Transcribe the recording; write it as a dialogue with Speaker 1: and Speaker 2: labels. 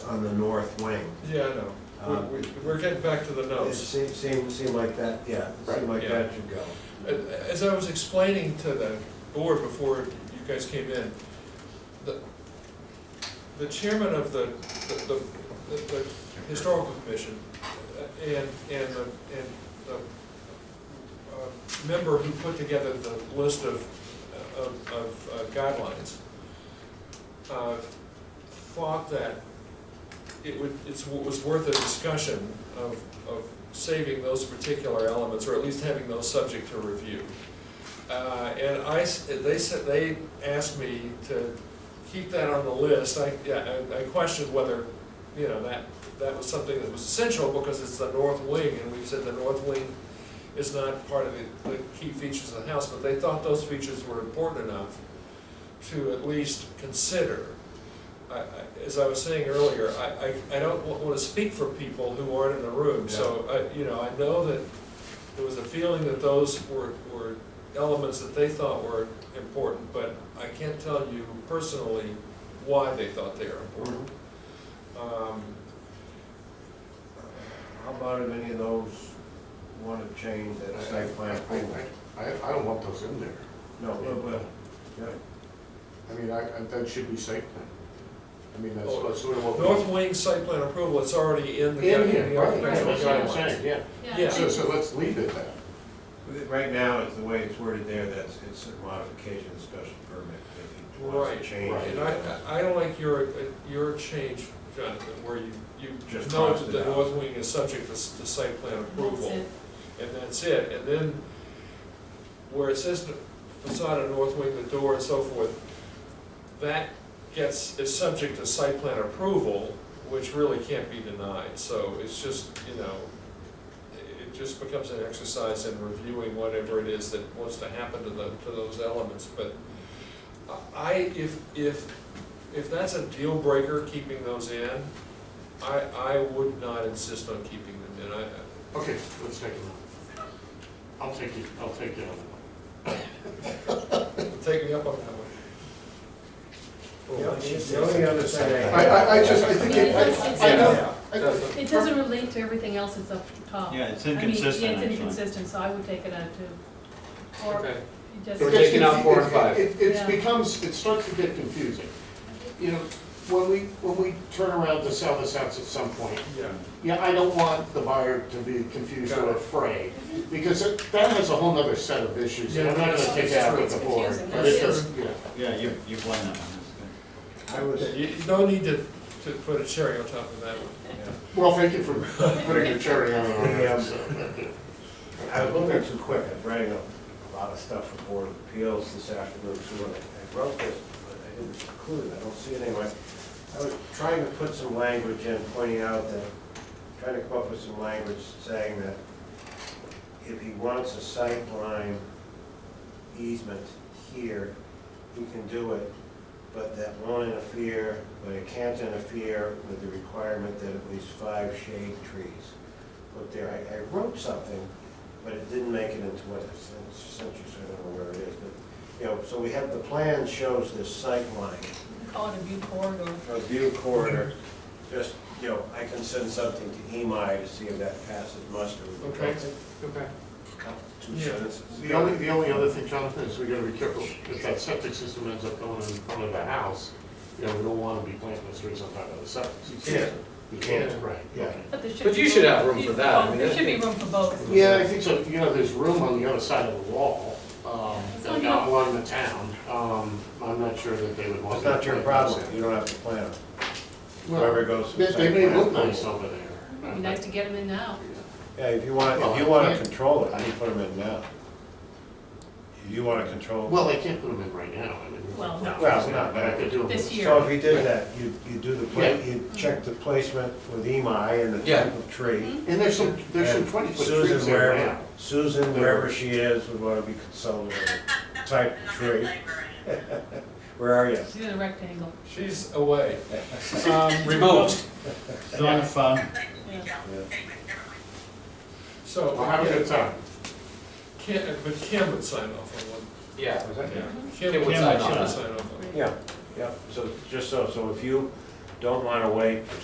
Speaker 1: on the north wing.
Speaker 2: Yeah, I know. We're-
Speaker 1: Um,
Speaker 2: we- We're getting back to the
Speaker 1: It
Speaker 2: notes.
Speaker 1: seemed, seemed, seemed like that, yeah, it seemed
Speaker 2: Right.
Speaker 1: like
Speaker 2: Yeah.
Speaker 1: that should go.
Speaker 2: A- As I was explaining to the board before you guys came in, the, the chairman of the, the, the- the historical commission uh, and, and the, and the uh, member who put together the list of, of, of uh, guidelines, uh, thought that it would, it's, it was worth a discussion of, of saving those particular elements, or at least having those subject to review. Uh, and I, s- they said, they asked me to keep that on the list, I, yeah, I I questioned whether, you know, that, that was something that was essential, because it's the north wing, and we've said the north wing is not part of the, the key features of the house, but they thought those features were important enough to at least consider. I, I, as I was saying earlier, I, I, I don't want to speak for people who aren't in the room, so, I, you know, I know that there was a feeling that those were, were elements that they thought were important, but I can't tell you personally why they thought they are important. Um,
Speaker 1: How about if any of those want to change
Speaker 3: I,
Speaker 1: that site plan approval?
Speaker 3: I, I, I don't want those in there.
Speaker 1: No, no, but, yeah,
Speaker 3: I mean, I, I- that should be site plan. I mean, that's
Speaker 2: Oh,
Speaker 3: that's sort of what. we-
Speaker 2: North Wing site plan approval, it's already in the.
Speaker 3: In here,
Speaker 2: the
Speaker 3: right,
Speaker 2: architectural
Speaker 3: that's what I'm
Speaker 2: guidelines.
Speaker 3: saying, yeah.
Speaker 2: Yeah.
Speaker 3: So, so let's leave it then.
Speaker 1: right now, it's the way it's worded there, that's, it's a modification of special permit, if he wants
Speaker 2: Right,
Speaker 1: to change.
Speaker 2: right,
Speaker 1: it.
Speaker 2: and I, I I don't like your, your change, Jonathan, where you, you
Speaker 1: Just
Speaker 2: note
Speaker 1: crossed
Speaker 2: that
Speaker 1: it
Speaker 2: the
Speaker 1: out.
Speaker 2: north wing is subject to, s- to site plan approval.
Speaker 4: That's it.
Speaker 2: And that's it, and then where it says the facade of north wing, the door and so forth, that gets, is subject to site plan approval, which really can't be denied, so it's just, you know, it it just becomes an exercise in reviewing whatever it is that wants to happen to the, to those elements, but I, if, if, if that's a deal breaker, keeping those in, I, I would not insist on keeping them in, I,
Speaker 3: Okay, let's take it off. I'll take it, I'll take the other one.
Speaker 2: Take me up on that one.
Speaker 1: Yeah, The only other thing.
Speaker 3: I, I, I just, I think, it- I, I know,
Speaker 1: Yeah.
Speaker 3: I-
Speaker 4: It doesn't relate to everything else that's up the top.
Speaker 5: Yeah, it's
Speaker 4: I mean,
Speaker 5: inconsistent,
Speaker 4: Yeah, it's
Speaker 5: actually.
Speaker 4: inconsistent, so I would take it out too. Or
Speaker 6: Okay.
Speaker 4: it just.
Speaker 6: We're taking out four and
Speaker 3: It-
Speaker 6: five.
Speaker 3: It, it
Speaker 4: Yeah.
Speaker 3: becomes, it starts to get confusing. You know, when we, when we turn around to sell this house at some point,
Speaker 2: Yeah.
Speaker 3: Yeah, I don't want the buyer to be confused
Speaker 2: Got
Speaker 3: or
Speaker 2: it.
Speaker 3: afraid, because it- that has a whole nother set of issues, and I'm not
Speaker 2: Yeah,
Speaker 3: gonna take that out with
Speaker 4: it's
Speaker 3: the board.
Speaker 4: confusing,
Speaker 3: But
Speaker 4: that's
Speaker 3: it
Speaker 4: true.
Speaker 3: does, yeah.
Speaker 5: Yeah, you, you won that one,
Speaker 1: I was,
Speaker 2: You, you don't need to, to put a cherry on top of that one.
Speaker 1: yeah.
Speaker 3: Well, thank you for putting your cherry on it.
Speaker 1: Yeah.
Speaker 3: so.
Speaker 1: I was moving too quick, I'm writing a lot of stuff for Board of Appeals this afternoon, so when I- I wrote this, but I didn't include it, I don't see it anyway. I was trying to put some language in, pointing out that, trying to come up with some language saying that if he wants a sight line easement here, he can do it, but that won't interfere, but it can't interfere with the requirement that at least five shade trees put there. I, I wrote something, but it didn't make it into what it's, it's essentially, so I don't know where it is, but, you know, so we have, the plan shows this sight line,
Speaker 4: Call it a view corridor.
Speaker 1: a view corridor, just, you know, I can send something to EMI to see if that passes muster. with the
Speaker 2: Okay.
Speaker 3: Okay.
Speaker 1: couple- Two
Speaker 2: Yeah.
Speaker 1: sentences.
Speaker 3: The only, the only other thing, Jonathan, is we gotta be careful, if that septic system ends up going in front of the house, you know, we don't wanna be planting those trees on top of the septic. system.
Speaker 1: can't.
Speaker 3: You can't, right, yeah.
Speaker 4: But there should.
Speaker 6: But
Speaker 4: be
Speaker 6: you should have room
Speaker 4: you-
Speaker 6: for that, I
Speaker 4: oh,
Speaker 6: mean,
Speaker 4: There
Speaker 6: that-
Speaker 4: should be room for both.
Speaker 3: Yeah, I think so, you know, there's room on the other side of the wall, um,
Speaker 4: It's
Speaker 3: that not
Speaker 4: on your-
Speaker 3: along the town, um, I'm not sure that they would want.
Speaker 1: It's not your
Speaker 3: to-
Speaker 1: problem, you don't have to plan it. Whoever goes.
Speaker 3: They, they may look nice over there.
Speaker 4: It'd be nice to get them in now.
Speaker 1: Yeah, if you want, if you want to control it, you put them in now. If you want to control.
Speaker 3: Well, they can't put them in right now, I mean.
Speaker 4: Well, no.
Speaker 1: Well, no, but-
Speaker 3: I could do them.
Speaker 4: This year.
Speaker 1: So if you did that, you, you do the, pla-
Speaker 3: Yeah.
Speaker 1: you check the placement with EMI and the
Speaker 6: Yeah.
Speaker 1: type of tree.
Speaker 3: And there's some, there's some
Speaker 1: And
Speaker 3: twenty foot
Speaker 1: Susan,
Speaker 3: trees there
Speaker 1: wherever-
Speaker 3: now.
Speaker 1: Susan, wherever she is, would want to be consulted on the type of tree. Where are you?
Speaker 4: She's in a rectangle.
Speaker 2: She's away.
Speaker 5: I
Speaker 2: Um,
Speaker 6: Remote.
Speaker 5: guess. Zone fun.
Speaker 4: Yeah.
Speaker 2: So,
Speaker 3: Well, have a good time.
Speaker 2: Kim, but Kim would sign off on one.
Speaker 6: Yeah.
Speaker 2: Kim
Speaker 6: Kim
Speaker 2: would
Speaker 6: would
Speaker 2: sign
Speaker 6: sign
Speaker 2: Kim would
Speaker 6: off.
Speaker 2: sign off on it.
Speaker 1: Yeah, yeah, so, just so, so if you don't want to wait for